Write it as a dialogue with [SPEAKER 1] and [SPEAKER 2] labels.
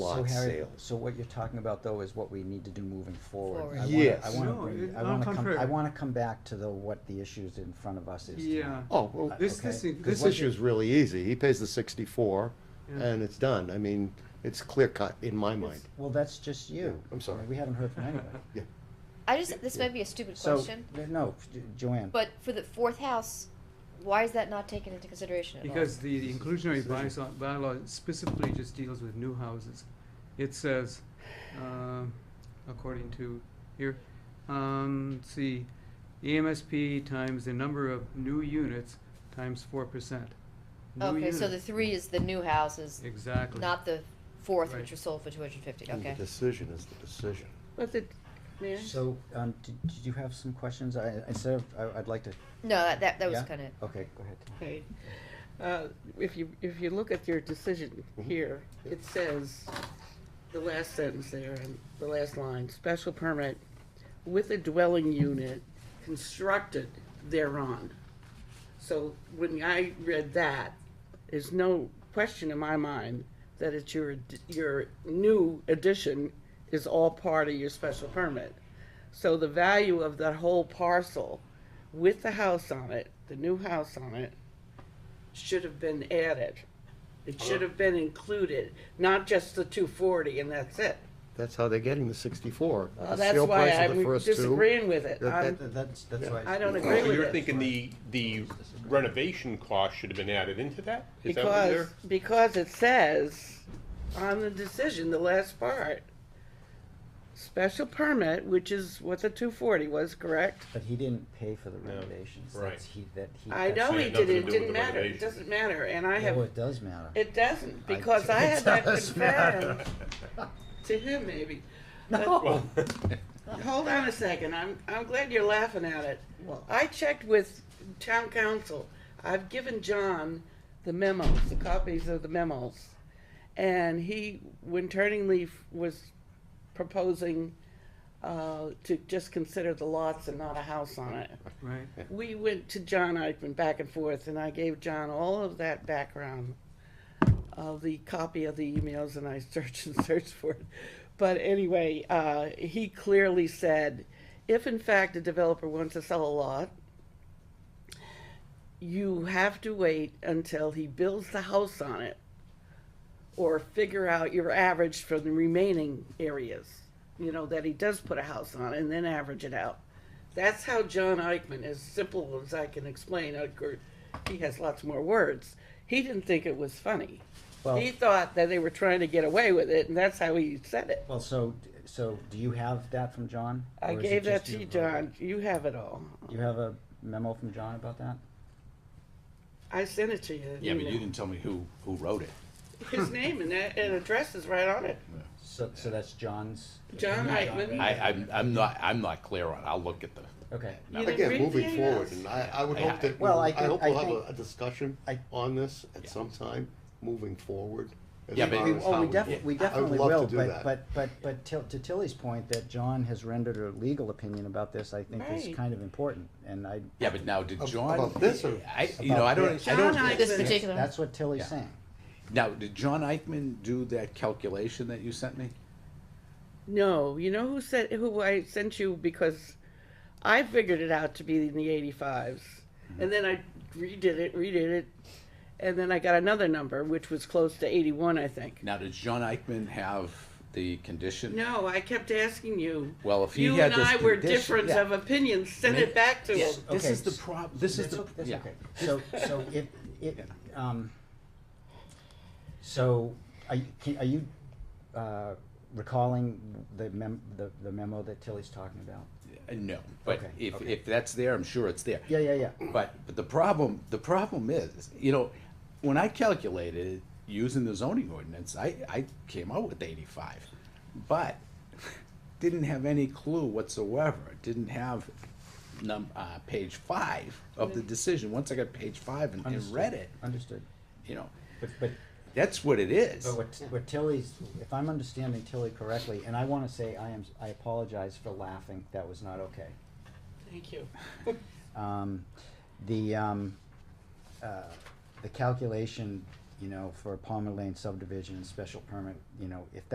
[SPEAKER 1] lot
[SPEAKER 2] So Harry,
[SPEAKER 1] sale.
[SPEAKER 2] so what you're talking about though is what we need to do moving forward.
[SPEAKER 3] Forward.
[SPEAKER 2] I wanna-
[SPEAKER 1] Yes.
[SPEAKER 2] I wanna,
[SPEAKER 4] No,
[SPEAKER 2] bring-
[SPEAKER 4] it-
[SPEAKER 2] I
[SPEAKER 4] on
[SPEAKER 2] wanna come, I
[SPEAKER 4] contrary.
[SPEAKER 2] wanna come back to the, what the issues in front of us is. tonight.
[SPEAKER 4] Yeah.
[SPEAKER 1] Oh, well,
[SPEAKER 4] This,
[SPEAKER 2] okay.
[SPEAKER 4] this, thing-
[SPEAKER 1] this
[SPEAKER 4] this
[SPEAKER 1] issue is really easy. He pays the sixty-four
[SPEAKER 4] Yeah.
[SPEAKER 1] and it's done. I mean, it's clear cut in my mind.
[SPEAKER 2] Well, that's just you.
[SPEAKER 1] I'm sorry.
[SPEAKER 2] We haven't heard from anybody.
[SPEAKER 3] I just, this might be a stupid
[SPEAKER 2] So,
[SPEAKER 3] question,
[SPEAKER 2] th- No, Jo- Joanne,
[SPEAKER 3] but for the fourth house, why is that not taken into consideration at all?
[SPEAKER 4] Because the inclusionary
[SPEAKER 1] Decision.
[SPEAKER 4] bylaw, bylaw specifically just deals with new houses. It says, um, according to here, um, let's see, E EMSP times the number of new units times four percent.
[SPEAKER 3] Okay, so the three is the new houses,
[SPEAKER 4] Exactly.
[SPEAKER 3] not the fourth,
[SPEAKER 4] Right.
[SPEAKER 3] which was sold for two hundred and fifty,
[SPEAKER 1] And
[SPEAKER 3] okay.
[SPEAKER 1] The decision is the decision.
[SPEAKER 5] Was it, may I?
[SPEAKER 2] so, um, did, did you have some questions? I, instead of, I, I'd like to,
[SPEAKER 3] No, that, that, that was
[SPEAKER 2] Yeah?
[SPEAKER 3] kinda,
[SPEAKER 2] okay, go ahead.
[SPEAKER 5] Okay. Uh, If you, if you look at your decision
[SPEAKER 1] Mhm.
[SPEAKER 5] here, it says, the last sentence there, and the last line, special permit with a dwelling unit constructed thereon. So when I read that, there's no question in my mind that it's your, ad- your new addition is all part of your special permit. So the value of that whole parcel with the house on it, the new house on it, should have been added. It should have been included, not just the two forty and that's it.
[SPEAKER 1] That's how they're getting the sixty-four.
[SPEAKER 5] Well,
[SPEAKER 1] Uh, The
[SPEAKER 5] that's
[SPEAKER 1] sale
[SPEAKER 5] why
[SPEAKER 1] price of the
[SPEAKER 5] I'm
[SPEAKER 1] first two.
[SPEAKER 5] disagreeing with it. Um,
[SPEAKER 1] That-
[SPEAKER 5] I'm-
[SPEAKER 2] Th- That's, that's why.
[SPEAKER 5] I don't agree
[SPEAKER 6] So
[SPEAKER 5] with
[SPEAKER 6] you're
[SPEAKER 5] it.
[SPEAKER 6] Oh, thinking the, the renovation cost should have been added into that? Is that what
[SPEAKER 5] Because,
[SPEAKER 6] you're-
[SPEAKER 5] because it says on the decision, the last part, special permit, which is what the two forty was, correct?
[SPEAKER 2] But he didn't pay for the
[SPEAKER 6] No,
[SPEAKER 2] renovations.
[SPEAKER 6] right.
[SPEAKER 2] That's he, that he.
[SPEAKER 5] I
[SPEAKER 2] that's-
[SPEAKER 5] know he
[SPEAKER 6] had nothing
[SPEAKER 5] did,
[SPEAKER 6] to
[SPEAKER 5] it
[SPEAKER 6] do with
[SPEAKER 5] didn't
[SPEAKER 6] the
[SPEAKER 5] matter, it
[SPEAKER 6] renovation.
[SPEAKER 5] doesn't matter, and I
[SPEAKER 2] Well,
[SPEAKER 5] have,
[SPEAKER 2] it does matter.
[SPEAKER 5] it doesn't, because I had that
[SPEAKER 2] does matter.
[SPEAKER 5] confirmed to him maybe.
[SPEAKER 2] No.
[SPEAKER 6] Well,
[SPEAKER 5] Hold on a second. I'm, I'm glad you're laughing at it. I checked with town council. I've given John the memos, the copies of the memos. And he, when Turning Leaf was proposing, uh, to just consider the lots and not a house on it.
[SPEAKER 4] Right.
[SPEAKER 5] We went to John Eichman back and forth, and I gave John all of that background of the copy of the emails, and I searched and searched for it. But anyway, uh, he clearly said, if in fact a developer wants to sell a lot, you have to wait until he builds the house on it, or figure out your average for the remaining areas, you know, that he does put a house on, and then average it out. That's how John Eichmann, as simple as I can explain, of course, he has lots more words. He didn't think it was funny.
[SPEAKER 2] Well-
[SPEAKER 5] he thought that they were trying to get away with it, and that's how he said it.
[SPEAKER 2] Well, so, so do you have that from John?
[SPEAKER 5] I
[SPEAKER 2] Or is it
[SPEAKER 5] gave
[SPEAKER 2] just
[SPEAKER 5] that to you,
[SPEAKER 2] verbally?
[SPEAKER 5] John. You have it all.
[SPEAKER 2] Do you have a memo from John about that?
[SPEAKER 5] I sent it to you.
[SPEAKER 7] Yeah, but
[SPEAKER 5] know.
[SPEAKER 7] you didn't tell me who, who wrote it.
[SPEAKER 5] His name and, that- and address is right on it.
[SPEAKER 2] So, so that's John's?
[SPEAKER 5] John Eichmann.
[SPEAKER 7] I, I'm, I'm not, I'm not clear on, it. I'll look at the,
[SPEAKER 2] Okay.
[SPEAKER 5] You didn't
[SPEAKER 1] Again,
[SPEAKER 5] read
[SPEAKER 1] moving
[SPEAKER 5] the
[SPEAKER 1] forward,
[SPEAKER 5] emails?
[SPEAKER 1] and I, I would
[SPEAKER 7] I-
[SPEAKER 1] hope that, we-
[SPEAKER 2] Well, I
[SPEAKER 1] I
[SPEAKER 2] think-
[SPEAKER 1] hope
[SPEAKER 2] I
[SPEAKER 1] we'll have
[SPEAKER 2] think-
[SPEAKER 1] a, a discussion
[SPEAKER 2] I-
[SPEAKER 1] on this at
[SPEAKER 7] Yeah.
[SPEAKER 1] some time, moving forward. as
[SPEAKER 7] Yeah, but-
[SPEAKER 1] far
[SPEAKER 2] We-
[SPEAKER 1] as
[SPEAKER 2] Oh,
[SPEAKER 1] how
[SPEAKER 2] we
[SPEAKER 1] do
[SPEAKER 2] definitely,
[SPEAKER 1] it.
[SPEAKER 2] we definitely
[SPEAKER 1] I would
[SPEAKER 2] will,
[SPEAKER 1] love to do
[SPEAKER 2] but,
[SPEAKER 1] that.
[SPEAKER 2] but, but, but Till- to Tilly's point that John has rendered a legal opinion about this, I think is
[SPEAKER 5] Right.
[SPEAKER 2] kind of important, and I,
[SPEAKER 7] yeah, but now, did
[SPEAKER 1] Ab-
[SPEAKER 7] John?
[SPEAKER 1] about this or
[SPEAKER 7] I, you know, I don't, I
[SPEAKER 5] John
[SPEAKER 7] don't,
[SPEAKER 5] Eichmann.
[SPEAKER 3] this particular,
[SPEAKER 2] that's what Tilly's
[SPEAKER 7] Yeah.
[SPEAKER 2] saying.
[SPEAKER 7] now, did John Eichman do that calculation that you sent me?
[SPEAKER 5] No, you know who said who I sent you because I figured it out to be in the 85s.
[SPEAKER 7] Mm-hmm.
[SPEAKER 5] And then I redid it, redid it, and then I got another number which was close to 81, I think.
[SPEAKER 7] Now, does John Eichman have the condition?
[SPEAKER 5] No, I kept asking you.
[SPEAKER 7] Well, if he
[SPEAKER 5] you
[SPEAKER 7] had
[SPEAKER 5] and
[SPEAKER 7] this
[SPEAKER 5] I were
[SPEAKER 7] condition-
[SPEAKER 5] different
[SPEAKER 7] yeah.
[SPEAKER 5] of opinion, send
[SPEAKER 7] mean,
[SPEAKER 5] it back to
[SPEAKER 7] Yeah,
[SPEAKER 5] him.
[SPEAKER 7] This
[SPEAKER 2] Okay.
[SPEAKER 7] is the prob, this is
[SPEAKER 2] That's
[SPEAKER 7] the,
[SPEAKER 2] o- that's
[SPEAKER 7] yeah.
[SPEAKER 2] okay. So, so if, it, um, so are you, can- are you, uh, recalling the mem, the, the memo that Tilly's talking about?
[SPEAKER 7] Uh, No, but
[SPEAKER 2] Okay,
[SPEAKER 7] if,
[SPEAKER 2] okay.
[SPEAKER 7] if that's there, I'm sure it's there.
[SPEAKER 2] Yeah, yeah, yeah.
[SPEAKER 7] But, but the problem, the problem is, you know, when I calculated it using the zoning ordinance, I, I came out with eighty-five. But didn't have any clue whatsoever, didn't have num, uh, page five of the decision. Once I got page five and, and
[SPEAKER 2] Understood.
[SPEAKER 7] read it,
[SPEAKER 2] Understood.
[SPEAKER 7] you know,
[SPEAKER 2] But, but
[SPEAKER 7] that's what it is.
[SPEAKER 2] But what, what Tilly's, if I'm understanding Tilly correctly, and I wanna say I am, I apologize for laughing, that was not okay.
[SPEAKER 5] Thank you.
[SPEAKER 2] Um, the, um, uh, the calculation, you know, for a Palmer Lane subdivision and special permit, you know, if